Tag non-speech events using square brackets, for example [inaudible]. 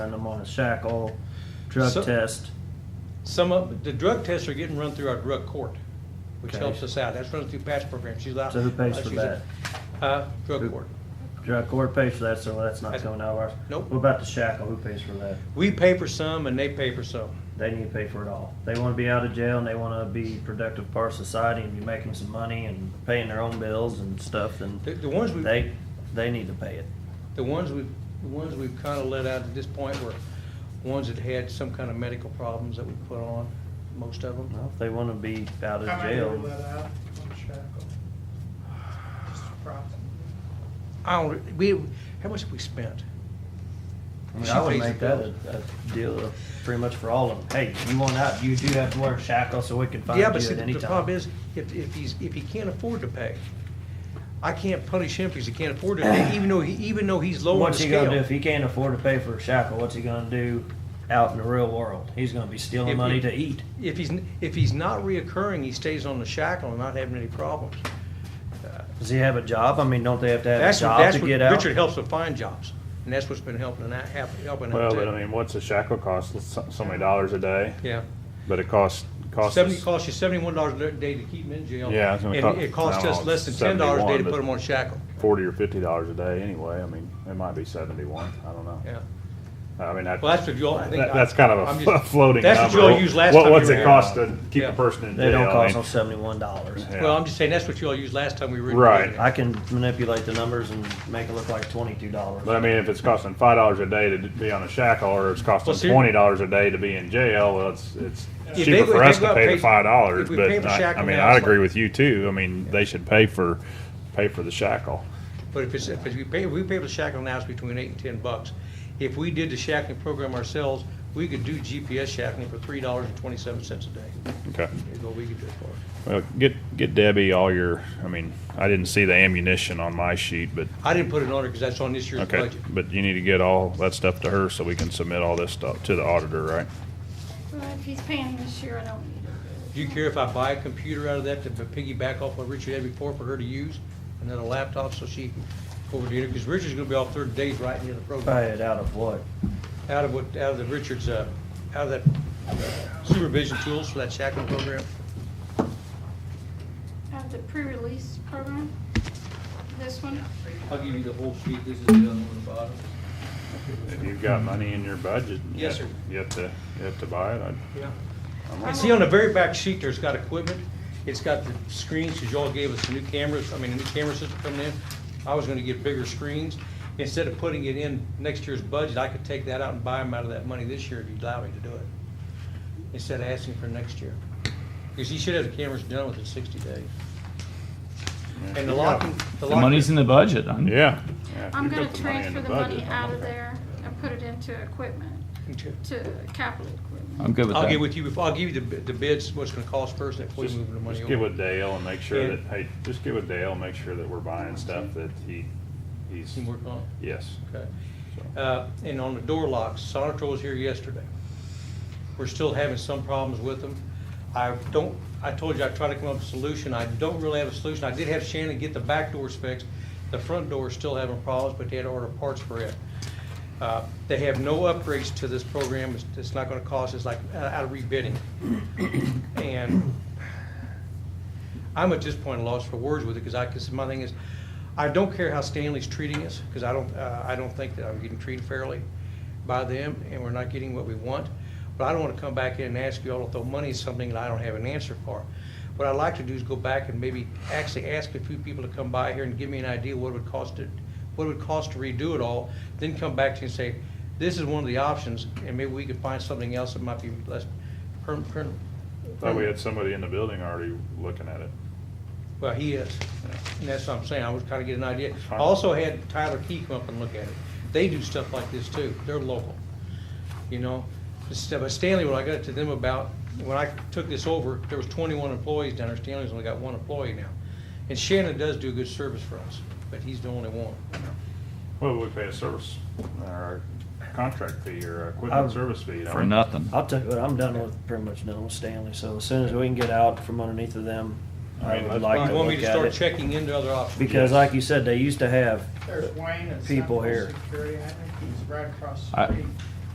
And I'm on a shackle drug So- test. Some of, the drug tests are getting run through our drug court, which Okay. helps us out. That's run through patch program. She's out. So who pays for she's a- Uh, Who- drug court. Drug court pays for that, so that's not That's- coming out of ours. Nope. What about the shackle? Who pays for that? We pay for some and they pay for some. They need to pay for it all. They want to be out of jail and they want to be productive part of society and be making some money and paying their own bills and stuff. Then The, the ones we, they they need to pay it. the ones we, the ones we've kind of let out at this point were ones that had some kind of medical problems that we put on, most of them. Well, if they want to be out of How uh, many were let jail, out on the shackle? Just approximately. I don't, we, how much have we spent? I, mean, She I would pays the make that a, bills. a deal of pretty much for all of them. Hey, you want out? You do have to wear a shackle, so we can find Yeah, you but see, at the any the time. problem is, if, if he's, if he can't afford to pay, I can't punish him because he can't afford [clears throat] to pay, even though he, even though he's low on the What's he scale. gonna do if he can't afford to pay for a shackle? What's he gonna do out in the real world? He's gonna be stealing If- money if- to eat. If he's, if he's not reoccurring, he stays on the shackle and not having any problems. Does he have a job? I mean, don't they have to have a That's what, job that's to what, get out? Richard helps him find jobs, and that's what's been helping and that, helping out Well, but I too. mean, what's a shackle cost? It's so, so many dollars a day, Yeah, but it costs costs seventy, us- costs you seventy-one dollars a day to keep him in jail. Yeah, it's gonna And cost- it costs no, us less than ten dollars a day to 71, put him but- on shackle, forty or fifty dollars a day anyway. I mean, it might be seventy-one. I don't know. yeah. I mean, that, Well, that's what you all, I think. that- that's kind of I'm a just- floating. That's what number. you all used last What- time. you What's were it here. cost to keep Yeah. a person in jail? They don't I cost mean, no seventy-one dollars. yeah. Well, I'm just saying, that's what you all used last time we were. Right. here. I can manipulate the numbers and make it look like twenty-two But I dollars. mean, if it's costing five dollars a day to d- be on a shackle, or it's costing Well, see- twenty dollars a day to be in jail, well, it's it's they cheaper go- for if us they to go pay pay- the five dollars. if we But pay for I, shackle I mean, now, I it's agree like- with you too. I mean, they should pay for pay for the shackle. But if it's, if we pay, we pay for the shackling now, it's between eight and ten bucks. If we did the shackling program ourselves, we could do GPS shackling for three dollars and twenty-seven cents a day. Okay. Is what we could do it for. Well, get get Debbie all your. I mean, I didn't see the ammunition on my sheet, but I didn't put it on it because that's on this year's okay. budget. But you need to get all that stuff to her so we can submit all this stuff to the auditor, right? Well, if he's paying this year, I don't need it. Do you care if I buy a computer out of that to piggyback off what Richard had before for her to use? And then a laptop so she can go over to, because Richard's gonna be off thirty days writing the other program. Pay it out of what? Out of what, out of the Richard's, uh, out of that supervision tools for that shackling program. Have the pre-release program, this one, I'll give you the whole sheet, this is the other one at the bottom. If you've got money in your budget, you Yes, have- sir. You have to you have to buy it. I'd, Yeah. I'm And see, on the very back sheet, there's got equipment, it's got the screens, because y'all gave us the new cameras, I mean, the new camera system coming in. I was gonna get bigger screens. Instead of putting it in next year's budget, I could take that out and buy them out of that money this year if you'd allow me to do it. Instead of asking for next year. Because he should have the cameras done within sixty days. And the locking, the The locking. money's in the budget. I'm- yeah. yeah if I'm you've gonna got in transfer the budget, money I'm out of okay. there and put it into equipment, to capital equipment. I'm good with I'll that. get with you, before I'll give you the bid- the bids, what's gonna cost first, and before you Just, move the money just over. get with Dale and make sure Yeah. that hey, just get with Dale and make sure that we're buying stuff that he he's Can you work on it? yes. Okay. So. Uh, And on the door locks, Sonatrol was here yesterday. We're still having some problems with them. I don't, I told you I tried to come up with a solution. I don't really have a solution. I did have Shannon get the back doors fixed. The front door is still having problems, but they had to order parts for it. Uh, They have no upgrades to this program. It's- It's not going to cost us like uh, out of rebidding. And I'm at this point lost for words with it, because I, because my thing is, I don't care how Stanley's treating us, because I don't, uh, I don't think that I'm getting treated fairly by them, and we're not getting what we want. But I don't want to come back in and ask you all to throw money at something that I don't have an answer for. What I'd like to do is go back and maybe actually ask a few people to come by here and give me an idea what it would cost to, what it would cost to redo it all, then come back to you and say, this is one of the options, and maybe we could find something else that might be less perm, perm. Thought we had somebody in the building already looking at it. Well, he is. And that's what I'm saying, I was trying to get an idea. I Fine. also had Tyler Key come up and look at it. They do stuff like this too, they're local, you know? This stuff- But Stanley, when I got to them about, when I took this over, there was twenty-one employees down there, Stanley's only got one employee now. And Shannon does do good service for us, but he's the only one. Well, we pay a service, or a contract fee, or a I- equipment service fee. don't for we? nothing. I'll tell you what, I'm done with, pretty much done with Stanley, so as soon as we can get out from underneath of them, I I mean, would that's like fine. to You want me look to at start it. checking into other options? Because like you said, they used to have, There's Wayne at People Central here. Security, I think he's right across I- the street.